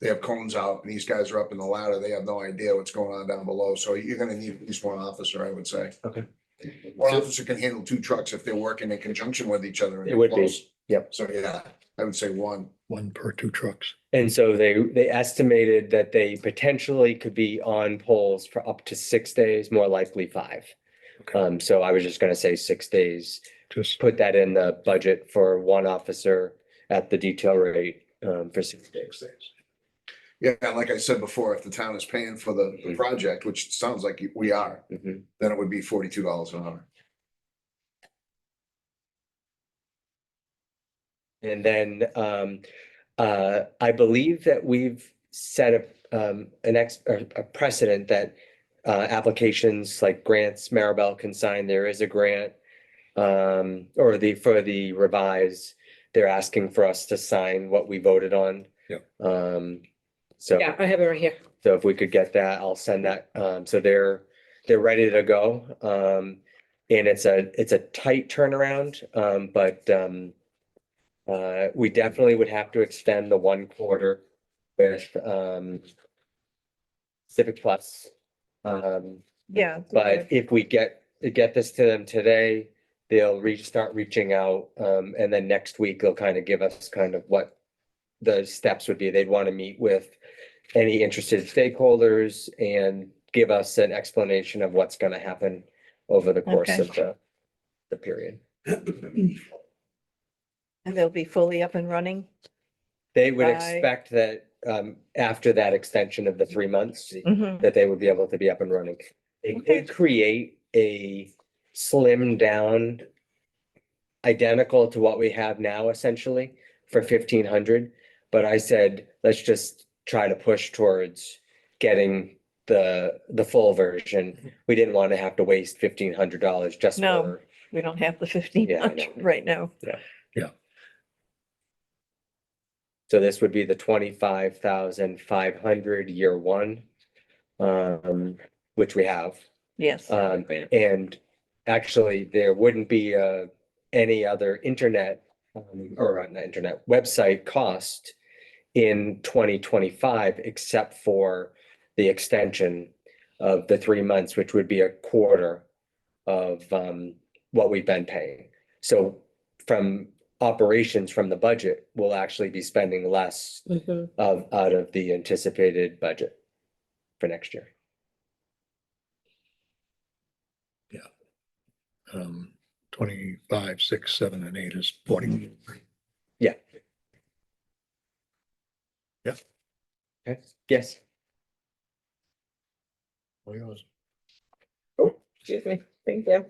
They have cones out and these guys are up in the ladder. They have no idea what's going on down below. So you're gonna need at least one officer, I would say. Okay. One officer can handle two trucks if they're working in conjunction with each other. and It would be, close. yep. So, yeah, I would say one. one per two trucks. And so they, they estimated that they potentially could be on polls for up to six days, more likely five. Okay. Um, so I was just gonna say six days, Just, put that in the budget for one officer at the detail rate, um, for six days. Yeah, and like I said before, if the town is paying for the, the project, which it sounds like we are, Mhm. then it would be forty-two dollars an hour. And then, um, uh, I believe that we've set a, um, an ex, a a precedent that uh, applications like grants Maribel can sign, there is a grant. Um, or the, for the revise, they're asking for us to sign what we voted on. Yep. Um, so, Yeah, I have it right here. so if we could get that, I'll send that, um, so they're, they're ready to go. Um, and it's a, it's a tight turnaround, um, but, um, uh, we definitely would have to extend the one quarter with, um, Civic Plus. Um, Yeah. but if we get, get this to them today, they'll reach, start reaching out. Um, and then next week, they'll kind of give us kind of what the steps would be. They'd want to meet with any interested stakeholders and give us an explanation of what's going to happen over the course Okay. of the, the period. And they'll be fully up and running. They would Right. expect that, um, after that extension of the three months, Mhm. that they would be able to be up and running. It Okay. could create a slim down identical to what we have now essentially for fifteen hundred. But I said, let's just try to push towards getting the, the full version. We didn't want to have to waste fifteen hundred dollars just No. for, We don't have the fifteen Yeah, I hundred know. right now. so this would be the twenty-five thousand five hundred year one. Um, which we have. Yes. Um, and actually, there wouldn't be, uh, any other internet, um, or not internet, website cost in twenty twenty-five, except for the extension of the three months, which would be a quarter of, um, what we've been paying. So from operations from the budget, we'll actually be spending less Mhm. of, out of the anticipated budget for next year. um, twenty-five, six, seven, and eight is forty. Okay. Yes. Excuse me. Thank you.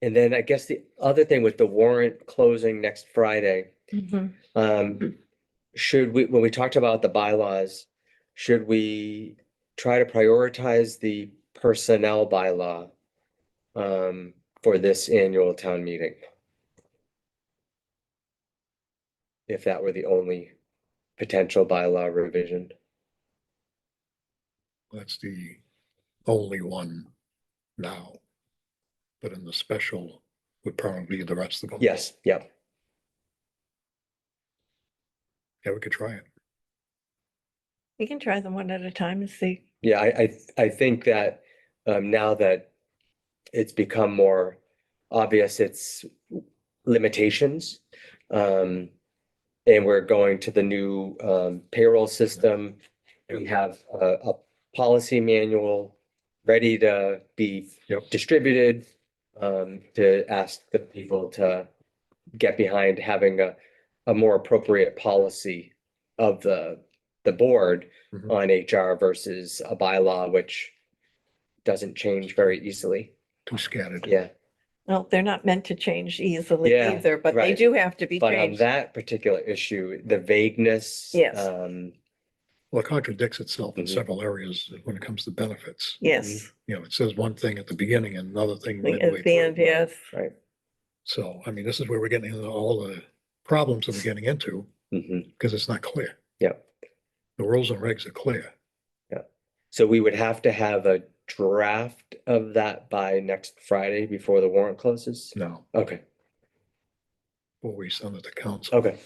And then I guess the other thing with the warrant closing next Friday, Mhm. um, should we, when we talked about the bylaws, should we try to prioritize the personnel bylaw um, for this annual town meeting? If that were the only potential bylaw revision, That's the only one now. But in the special would probably be the rest of them. yes, yep. Yeah, we could try it. We can try them one at a time and see. Yeah, I, I, th- I think that, um, now that it's become more obvious, its limitations. Um, and we're going to the new, um, payroll system. We have a, a policy manual ready to be Yep. distributed. Um, to ask the people to get behind having a, a more appropriate policy of the, the board Mhm. Mm-hmm. on HR versus a bylaw, which doesn't change very easily. Too scattered. Yeah, Well, they're not meant to change easily Yeah, either, but they right. do have to be but on changed. that particular issue, the vagueness. Yes. Um, Well, it contradicts itself in Mhm. several areas when it comes to benefits. Yes. You know, it says one thing at the beginning and another thing. Mm-hmm. midway At through. the end, yes. So, I mean, this is where we're getting into all the problems that we're getting into mhm. because it's not clear. Yep. The rules and regs are clear. So we would have to have a draft of that by next Friday before the warrant closes? No, Okay, before we send it to council. okay,